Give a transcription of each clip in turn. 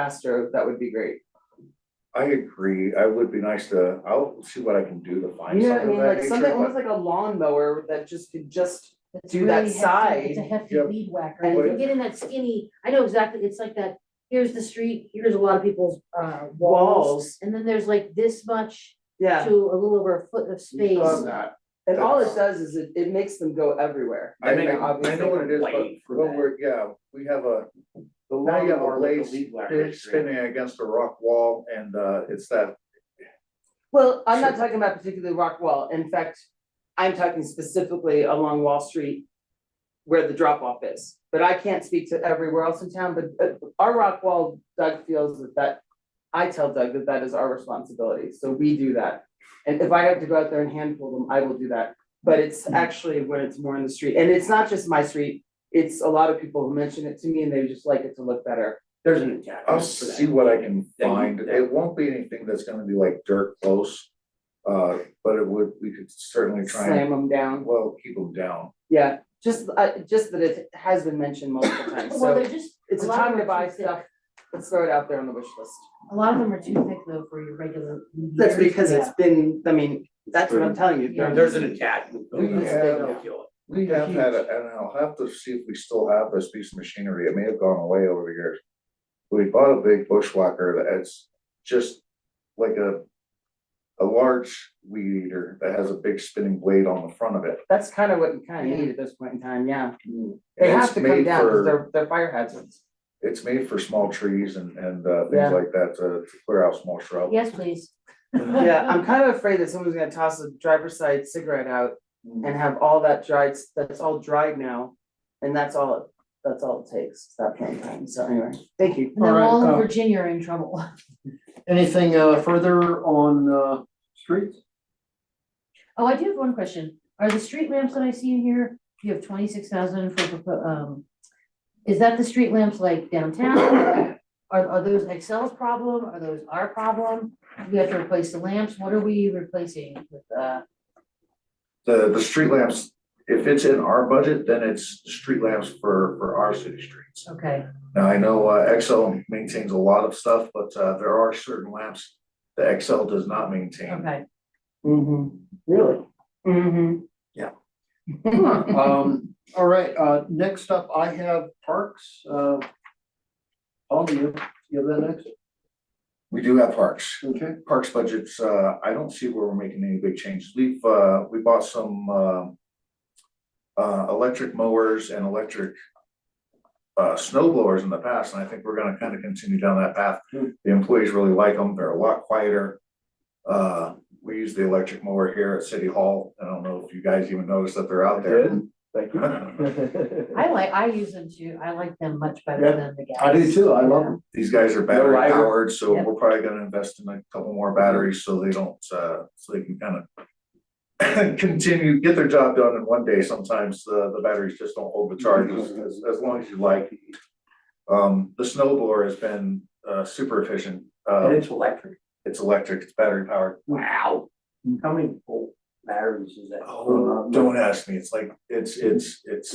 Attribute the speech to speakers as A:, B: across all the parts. A: faster, that would be great.
B: I agree, I would be nice to, I'll see what I can do to
A: You
B: find
A: know what I
B: something
A: mean,
B: of that
A: like something,
B: nature,
A: almost
B: but
A: like a lawnmower that just could just,
C: It's
A: do that
C: really hefty,
A: side.
C: It's a hefty
B: Yep.
C: weed whacker,
A: And-
C: and if you get in that skinny, I know exactly, it's like that, here's the street, here's a lot of people's uh walls.
A: Walls.
C: And then there's like this much
A: yeah,
C: to a little over a foot of
B: we've
C: space.
B: done that.
A: and all it does is it, it makes them go everywhere.
B: I,
A: And then
B: I, I know what it is,
D: blade
B: but
D: for
B: when
D: that.
B: we're, yeah, we have a,
D: The
B: now you have a
D: lawnmower with
B: blade
D: the leaf whacker
B: spin-
D: string.
B: spinning against a rock wall and, uh, it's that,
A: Well, I'm not
B: Sure.
A: talking about particularly rock wall, in fact, I'm talking specifically along Wall Street. Where the drop off is, but I can't speak to everywhere else in town, but uh, our rock wall, Doug feels that that. I tell Doug that that is our responsibility, so we do that, and if I have to go out there and hand pull them, I will do that. But
B: Mm-hmm.
A: it's actually when it's more in the street, and it's not just my street, it's a lot of people who mention it to me and they just like it to look better.
D: There's an attack.
B: I'll see what I can
D: Yeah, you-
B: find,
D: yeah.
B: it won't be anything that's gonna be like dirt close. Uh, but it would, we could certainly try
A: Slam
B: and,
A: them down.
B: well, keep them down.
A: Yeah, just, uh, just that it has been mentioned multiple times,
C: Well,
A: so
C: they're just,
A: it's a
C: a lot of
A: time to
C: them are
A: buy
C: too thick.
A: stuff, let's throw it out there on the wish list.
C: a lot of them are too thick though for your regular. weed
A: That's
C: eaters.
A: because it's been, I mean, that's what I'm telling you,
C: Yeah.
A: there-
D: There's an attack.
B: Yeah. We have had, a- and I'll have to see if we still have this piece of machinery, it may have gone away over the years. We bought a big bushwhacker that's just like a. A large weed eater that has a big spinning blade on the front of it.
A: that's kind of what you kind
C: Yeah.
A: of need at this point in time, yeah. They
B: And
A: have
B: it's
A: to come
B: made
A: down,
B: for-
A: because they're, they're fire hazards.
B: It's made for small trees and and uh
A: Yeah.
B: things like that to to clear out small shrubs.
C: Yes, please.
A: Yeah, I'm kind of afraid that someone's gonna toss a driver's side cigarette out and
B: Mm.
A: have all that dried, s- that's all dried now. And that's all, it- that's all it takes, at that point in time, so anyway, thank you.
C: And then
E: All right,
C: all in
A: oh.
E: uh,
C: Virginia are in trouble.
E: Anything uh further on uh streets?
C: Oh, I do have one question. Are the street lamps that I see in here, you have twenty-six thousand for, propo- um, is that the street lamps like downtown? Are, are those Excel's problem? Are those our problem? Do We have to replace the lamps. What are we replacing with, uh,
B: The the street lamps, if it's in our budget, then it's street lamps for for our city streets.
C: okay,
B: Now, I know uh, Excel maintains a lot of stuff, but uh, there are certain lamps that Excel does not maintain.
C: okay.
A: Mm-hmm, really? Mm-hmm.
E: Um, all right, uh, next up, I have parks, uh. Paul, do you, you have that next,
B: We do have parks.
E: okay?
B: Parks budgets, uh, I don't see where we're making any big changes. We've, uh, we bought some uh, uh, electric mowers and electric uh, snow blowers in the past, and I think we're gonna kind of continue down that path.
E: Hmm.
B: The employees really like them. They're a lot quieter. Uh, We use the electric mower here at City Hall. I don't know if you guys even noticed that they're out there.
D: Thank you.
C: I like, I use them too. I like them much better
E: Yeah,
C: than the gas.
E: I do too, I love them.
B: These guys are battery
D: lighter.
B: powered, so
C: Yep.
B: we're probably gonna invest in a couple more batteries so they don't, uh, so they can kind of continue, get their job done in one day. Sometimes the, the batteries just don't hold the charges as, as long as you like. Um, the snow blower has been, uh, super efficient.
D: And
B: Uh,
D: it's electric.
B: it's electric, it's battery powered.
D: Wow. How many volt batteries is that?
B: Oh, don't ask me. It's like, it's, it's, it's,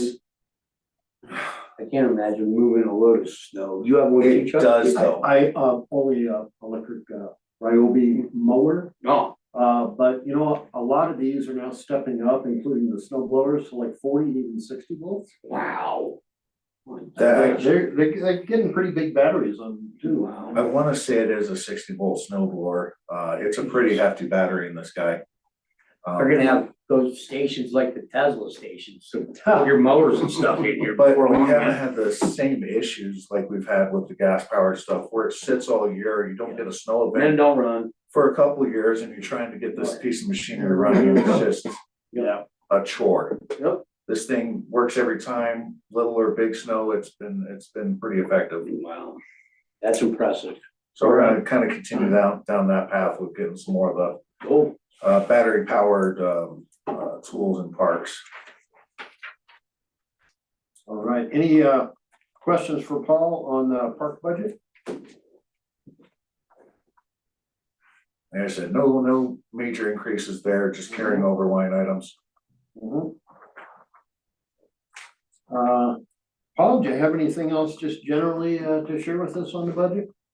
D: I can't imagine moving a load of snow. You have one
B: It
D: Chuck?
B: does.
E: I, I, um, only, uh, electric, uh, Ryobi mower,
D: No.
E: uh, but you know, a lot of these are now stepping up, including the snow blowers, to like forty, even sixty volts.
D: Wow.
B: That-
E: They're, they're, they're getting pretty big batteries on them too.
D: Wow.
B: I wanna say it is a sixty volt snow blower. Uh, it's a pretty hefty battery in this guy. Um,
D: They're gonna have those stations like the Tesla stations, so put your motors and stuff in here.
B: But
D: before
B: we
D: long,
B: haven't
D: man.
B: had the same issues like we've had with the gas powered stuff where it sits all year, you don't get a snow
D: Then
B: event
D: don't run.
B: for a couple of years and you're trying to get this piece of machinery running and it's just
D: Yeah.
B: a chore.
E: Yep.
B: This thing works every time, little or big snow, it's been, it's been pretty effective.
D: Wow. That's impressive.
B: So we're gonna kind of continue down, down that path with getting some more of
D: Cool.
B: the uh, battery powered um, uh, tools and parks.
E: All right, any uh questions for Paul on the park budget?
B: Like I said, no, no major increases there, just carrying over line items.
E: Mm-hmm. Uh, Paul, do you have anything else just generally uh to share with us on the budget?